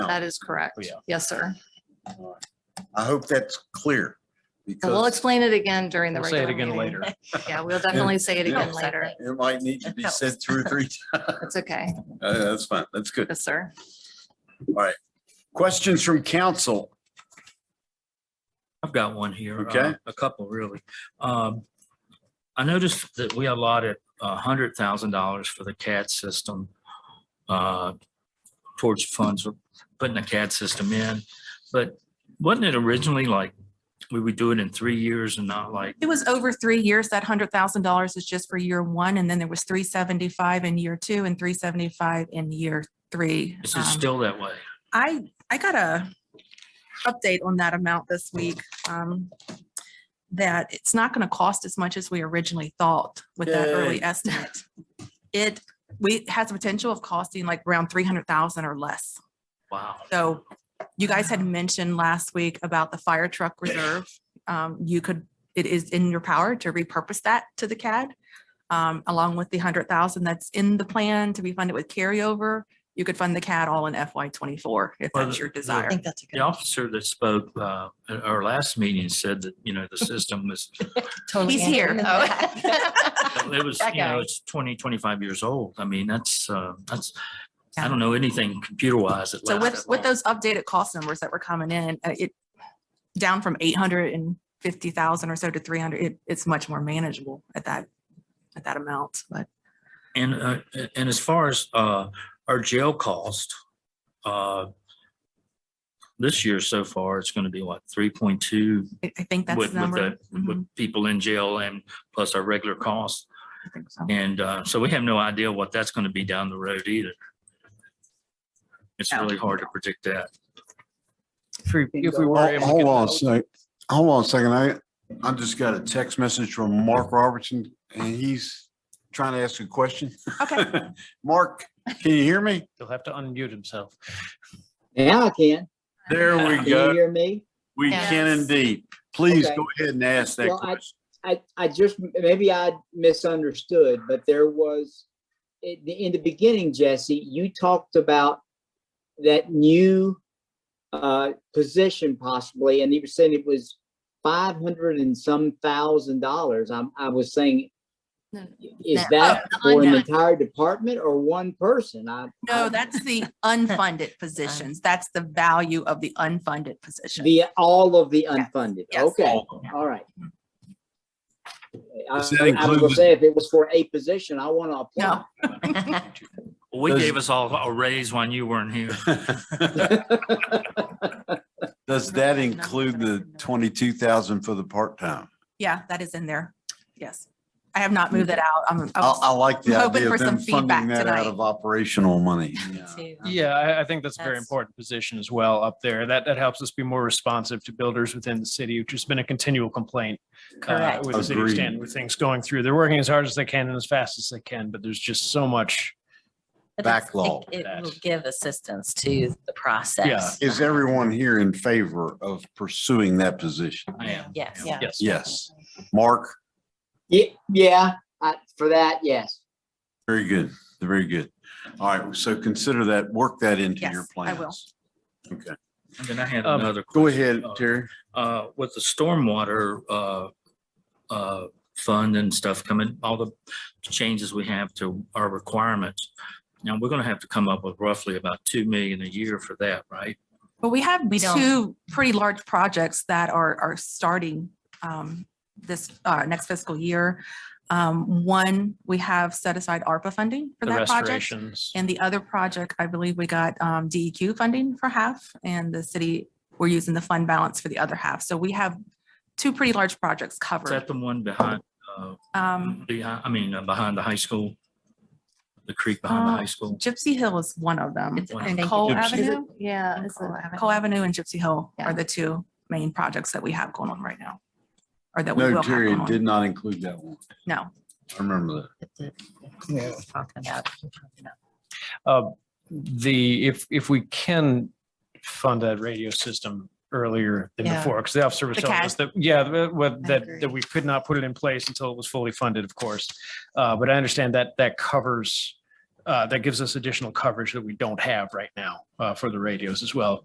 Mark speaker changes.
Speaker 1: That is correct.
Speaker 2: Oh, yeah.
Speaker 1: Yes, sir.
Speaker 3: I hope that's clear
Speaker 1: And we'll
Speaker 3: because
Speaker 1: explain it again during the
Speaker 2: We'll say
Speaker 1: regular
Speaker 2: it again
Speaker 1: meeting.
Speaker 2: later.
Speaker 1: Yeah, we'll definitely say it again
Speaker 3: Yeah.
Speaker 1: later.
Speaker 3: it might need to be said two or three. times.
Speaker 1: It's okay.
Speaker 3: Uh, That's fine. That's good.
Speaker 1: Yes, sir.
Speaker 3: Questions from council?
Speaker 4: I've got one here. uh,
Speaker 3: Okay.
Speaker 4: A couple, really. Um, I noticed that we allotted a hundred thousand dollars for the CAD system uh, towards funds, for putting the CAD system in, but wasn't it originally like we would do it in three years and not like,
Speaker 5: It was over three years. That hundred thousand dollars is just for year one, and then there was three seventy-five in year two and three seventy-five in year three.
Speaker 4: is it
Speaker 5: Um,
Speaker 4: still that way?
Speaker 5: I, I got a update on that amount this week. um, That it's not going to cost as much as we originally thought with that early
Speaker 3: Yay.
Speaker 5: estimate. It, we, has the potential of costing like around three hundred thousand or less.
Speaker 4: Wow.
Speaker 5: So you guys had mentioned last week about the fire truck reserve. Um, you could, it is in your power to repurpose that to the CAD. Um, along with the hundred thousand that's in the plan to be funded with carryover, you could fund the CAD all in FY twenty-four if
Speaker 4: Well,
Speaker 5: that's your
Speaker 4: the- the-
Speaker 5: desire.
Speaker 6: think that's a
Speaker 4: The
Speaker 6: good.
Speaker 4: officer that spoke uh, at our last meeting said that, you know, the system was,
Speaker 6: totally
Speaker 5: He's here. Oh.
Speaker 6: answering that.
Speaker 4: it was,
Speaker 6: That
Speaker 4: you know,
Speaker 6: guy.
Speaker 4: it's 20, 25 years old. I mean, that's, uh, that's I
Speaker 5: Yeah.
Speaker 4: don't know anything computer wise.
Speaker 5: So with, with those updated cost numbers that were coming in, uh, it, down from eight hundred and fifty thousand or so to three hundred, it, it's much more manageable at that, at that amount, but.
Speaker 4: And, uh, and as far as, uh, our jail cost, uh, this year so far, it's going to be what, three point two
Speaker 5: I I think that's
Speaker 4: with,
Speaker 5: the
Speaker 4: with
Speaker 5: number.
Speaker 4: the,
Speaker 5: Mhm,
Speaker 4: with people in jail and plus our regular costs.
Speaker 5: Mm-hmm, I think so.
Speaker 4: And, uh, so we have no idea what that's going to be down the road either. It's
Speaker 5: No.
Speaker 4: really hard to predict that.
Speaker 2: If we were
Speaker 7: Hol-
Speaker 2: able to
Speaker 7: Hold
Speaker 2: get
Speaker 7: on a
Speaker 2: those-
Speaker 7: sec, hold on a second. I, I just got a text message from Mark Robertson and he's trying to ask a question.
Speaker 5: Okay.
Speaker 7: Mark, can you hear me?
Speaker 2: He'll have to unmute himself.
Speaker 8: Now I can.
Speaker 7: There we
Speaker 8: Can you
Speaker 7: go.
Speaker 8: hear me?
Speaker 7: We can indeed. Please
Speaker 8: Okay.
Speaker 7: go ahead and ask that
Speaker 8: Well, I-
Speaker 7: question.
Speaker 8: I, I just, maybe I misunderstood, but there was, in the, in the beginning, Jesse, you talked about that new uh, position possibly, and you were saying it was five hundred and some thousand dollars. I'm, I was saying,
Speaker 1: No, no,
Speaker 8: is
Speaker 1: no.
Speaker 8: that
Speaker 1: Oh,
Speaker 8: for an
Speaker 1: no.
Speaker 8: entire department or one person? I.
Speaker 5: No,
Speaker 8: I-
Speaker 5: that's the unfunded positions. That's the value of the unfunded position.
Speaker 8: The, all of the
Speaker 5: Yes,
Speaker 8: unfunded.
Speaker 5: yes.
Speaker 8: Okay,
Speaker 4: All of
Speaker 8: all right. I
Speaker 7: Does that
Speaker 8: I was
Speaker 7: include
Speaker 8: gonna
Speaker 7: the-
Speaker 8: say, if it was for a position, I want to apply.
Speaker 5: No,
Speaker 4: We
Speaker 7: Does-
Speaker 4: gave us all a raise when you weren't here.
Speaker 7: Does that include the twenty-two thousand for the part-time?
Speaker 5: yeah, that is in there. Yes. I have not moved it out. I'm, I
Speaker 7: I, I
Speaker 5: was-
Speaker 7: like the
Speaker 5: Oh, I'm hoping
Speaker 7: idea
Speaker 5: for
Speaker 7: of them
Speaker 5: some feedback
Speaker 7: funding that out
Speaker 5: tonight.
Speaker 7: of operational money.
Speaker 2: Yeah, I, I think that's a very
Speaker 6: That's-
Speaker 2: important position as well up there. That, that helps us be more responsive to builders within the city, which has been a continual complaint. uh,
Speaker 6: Correct.
Speaker 2: With the city of
Speaker 7: Agreed.
Speaker 2: Stanton, with things going through. They're working as hard as they can and as fast as they can, but there's just so much.
Speaker 6: But that's- it-
Speaker 7: Backlog.
Speaker 6: It will give assistance to the process.
Speaker 7: Is everyone here in favor of pursuing that position?
Speaker 4: I am.
Speaker 6: Yes.
Speaker 1: Yeah.
Speaker 2: Yes.
Speaker 7: Yes. Mark?
Speaker 8: Yeah, yeah, I, for that, yes.
Speaker 7: Very good, very good. All right, so consider that, work that into your
Speaker 5: Yes, I
Speaker 7: plans.
Speaker 5: will.
Speaker 7: Okay,
Speaker 4: And then I had
Speaker 2: Um,
Speaker 4: another.
Speaker 7: go
Speaker 4: question.
Speaker 7: ahead,
Speaker 4: Uh,
Speaker 7: Terry.
Speaker 4: uh, with the stormwater, uh, uh, fund and stuff coming, all the changes we have to our requirements. Now, we're gonna have to come up with roughly about two million a year for that, right?
Speaker 5: but we have
Speaker 6: We don't-
Speaker 5: two pretty large projects that are, are starting um, this, uh, next fiscal year. Um, One, we have set aside ARPA funding for
Speaker 2: The
Speaker 5: that project.
Speaker 2: restorations.
Speaker 5: And the other project, I believe we got um, DEQ funding for half and the city, we're using the fund balance for the other half. So we have two pretty large projects
Speaker 4: Is that
Speaker 5: covered.
Speaker 4: the one behind, uh,
Speaker 5: Um,
Speaker 4: behind, I mean, uh, behind the high school? The creek behind the
Speaker 5: Uh,
Speaker 4: high school?
Speaker 5: Gypsy Hill is one of them.
Speaker 6: It's- I
Speaker 5: And
Speaker 6: think
Speaker 5: Cole
Speaker 6: it-
Speaker 7: Gypsy.
Speaker 5: Avenue,
Speaker 1: Yeah. it's
Speaker 5: Cole
Speaker 1: a-
Speaker 5: Ave- Cole Avenue and Gypsy Hill
Speaker 1: Yeah.
Speaker 5: are the two main projects that we have going on right now. Or that we will
Speaker 7: No,
Speaker 5: have
Speaker 7: Terry,
Speaker 5: going
Speaker 7: it did
Speaker 5: on.
Speaker 7: not include that one.
Speaker 5: No,
Speaker 7: I remember that.
Speaker 6: We're talking about. we're talking about.
Speaker 2: Uh, The, if, if we can fund that radio system earlier than
Speaker 6: Yeah.
Speaker 2: before, because the officer was
Speaker 5: The
Speaker 2: telling
Speaker 5: CAD.
Speaker 2: us that, yeah, the- uh, what-
Speaker 6: I
Speaker 2: that,
Speaker 6: agree.
Speaker 2: that we could not put it in place until it was fully funded, of course. Uh, But I understand that, that covers uh, that gives us additional coverage that we don't have right now, uh, for the radios as well.